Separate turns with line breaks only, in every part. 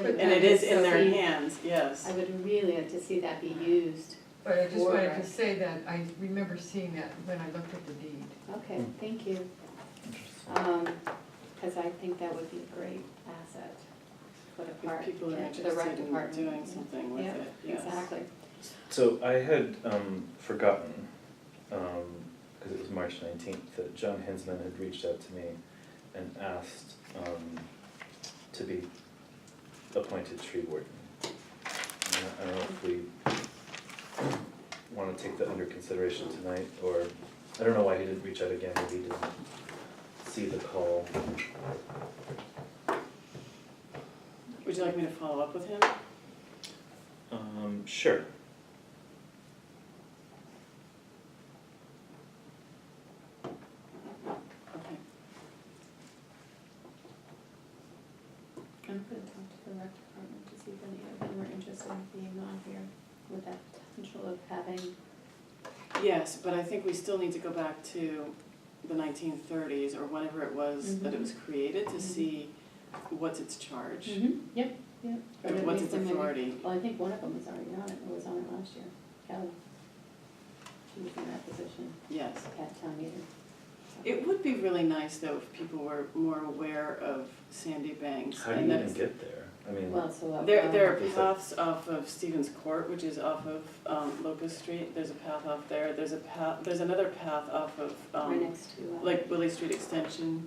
could
And it is in their
not be-
hands, yes.
I would really like to see that be used.
But I just wanted
Or-
to say that I remember seeing that when I looked at the deed.
Okay,
Hmm.
thank you. Because I think that would be a great asset for the
If
park,
people are
yeah, to the rec
interested in
department.
doing something with
Yeah,
it, yes.
Exactly.
So I had um, forgotten, because it was March 19th, that John Hinsman had reached out to me and asked um, to be appointed tree warden. And I don't know if we want to take that under consideration tonight, or, I don't know why he didn't reach out again, maybe he didn't see the call.
Would you like me to follow up with him?
Um, Sure.
Okay.
I'm going to talk to the rec department to see if any of them are interested in being on here with that potential of having,
Yes, but I think we still need to go back to the nineteen thirties or whenever it was that it was created to
Mhm.
see what's its charge
Mm-hmm, yep, yep. Or
and
at
what's
least
its
somebody-
authority.
Well, I think one of them is already on it, or was on it last year, Kelly. She was in that position
Yes.
at town meeting.
It would be really nice though if people were more aware of Sandy Banks
How do
and
you even
that's.
get there? I mean,
Well, so. uh,
There, there are
Is that-
paths off of Stevens Court, which is off of um, Locust Street, there's a path off there, there's a path, there's another path off of,
Right
um,
next to. uh,
like Willie Street Extension.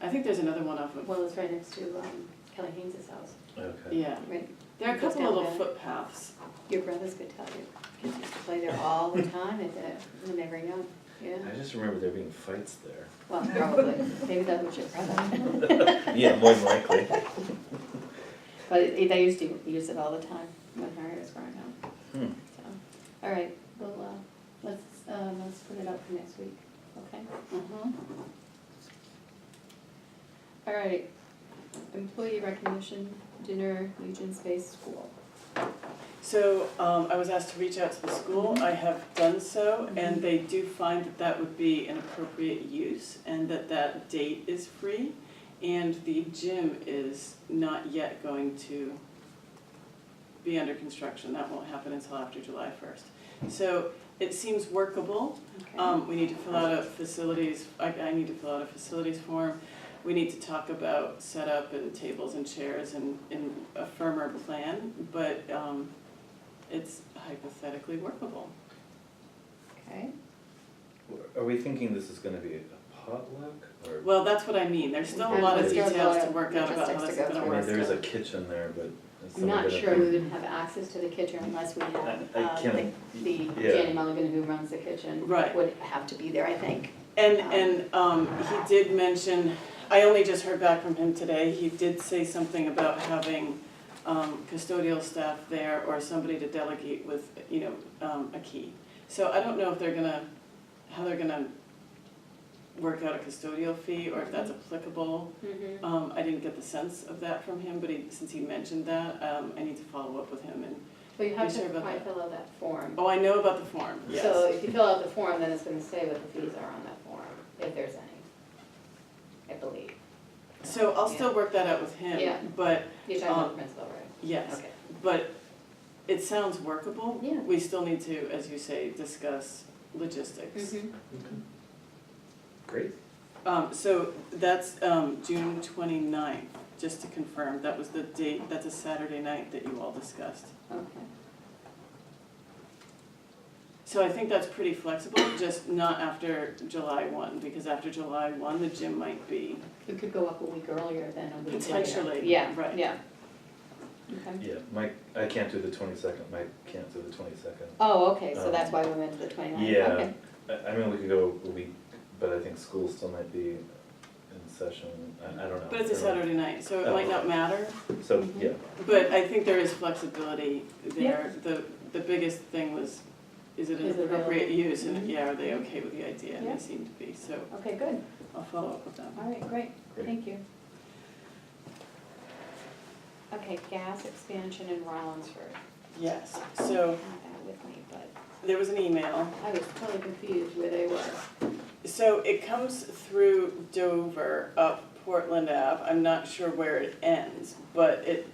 I think there's another one off of,
Well, it's right next to um, Kelly Haynes's house,
okay.
yeah,
right?
there are a
It goes
couple
down
little
there.
footpaths.
Your brothers could tell you, kids used to play there all the time at the, when they were young, yeah.
I just remember there being fights there.
Well, probably, maybe that was your brother.
Yeah, more than likely.
But it- they used to use it all the time when Harry was growing up,
Hmm.
so. All right, well, uh, let's, uh, let's put it up for next week, okay?
Mhm.
All right, employee recognition dinner, Legion Space School.
So um, I was asked to reach out to the school. I have done so, and they do find that that would be an appropriate use, and that that date is free, and the gym is not yet going to be under construction. That won't happen until after July first. So it seems workable.
Okay.
Um, we need to fill out a facilities, I, I need to fill out a facilities form. We need to talk about setup and tables and chairs and, and a firmer plan, but, um, it's hypothetically workable.
Okay,
Are we thinking this is gonna be a potluck or?
Well, that's what I mean, there's still a lot of
There's still
a
details
lot
to
of
work out about how this
logistics to
is
go
gonna
I
work.
mean, there is a kitchen there, but. is
I'm
someone
not
gonna
sure
be-
we would have access to the kitchen unless we
I
have,
I
uh, the
can't,
the Danny
yeah,
Mulligan who runs the kitchen
Right.
would have to be there, I think.
And, and, um, he did mention, I only just heard back from him today, he did say something about having, um, custodial staff there or somebody to delegate with, you know, um, a key. So I don't know if they're gonna, how they're gonna work out a custodial fee or if that's applicable.
Mm-hmm.
Um, I didn't get the sense of that from him, but he, since he mentioned that, um, I need to follow up with him and,
But you have
Be
to
sure about
probably
that.
fill out that form.
oh, I know about the form, yes.
So if you fill out the form, then it's gonna say what the fees are on that form, if there's any, I believe.
So I'll still work that out with him,
Yeah.
but,
You're talking about
Um,
the principal, right?
yes.
Okay.
But it sounds workable.
Yeah.
We still need to, as you say, discuss logistics.
Mm-hmm.
great.
Um, so that's, um, June twenty-ninth, just to confirm, that was the date, that's a Saturday night that you all discussed.
Okay,
So I think that's pretty flexible, just not after July one, because after July one, the gym might be,
it could go up a week earlier than a week later.
Potentially,
Yeah,
right.
yeah. Okay.
Yeah, Mike, I can't do the twenty-second, Mike can't do the twenty-second.
Oh, okay, so
Um,
that's why we went to the twenty-ninth,
Yeah,
okay.
I, I mean, we could go a week, but I think school still might be in session, I, I don't know.
but it's a Saturday night, so it might not matter.
So, yeah,
But I think there is flexibility there. The, the biggest thing was, is it an
Is it
appropriate use?
Mhm.
And yeah, are they okay with the idea? And
Yeah.
they seem to be, so
Okay, good,
I'll follow up with them.
all right, great,
Great.
thank you. Okay, gas expansion in Rollinsford.
Yes, so
I have that with me, but
there was an email.
I was totally confused where they were.
So it comes through Dover up Portland Ave. I'm not sure where it ends, but it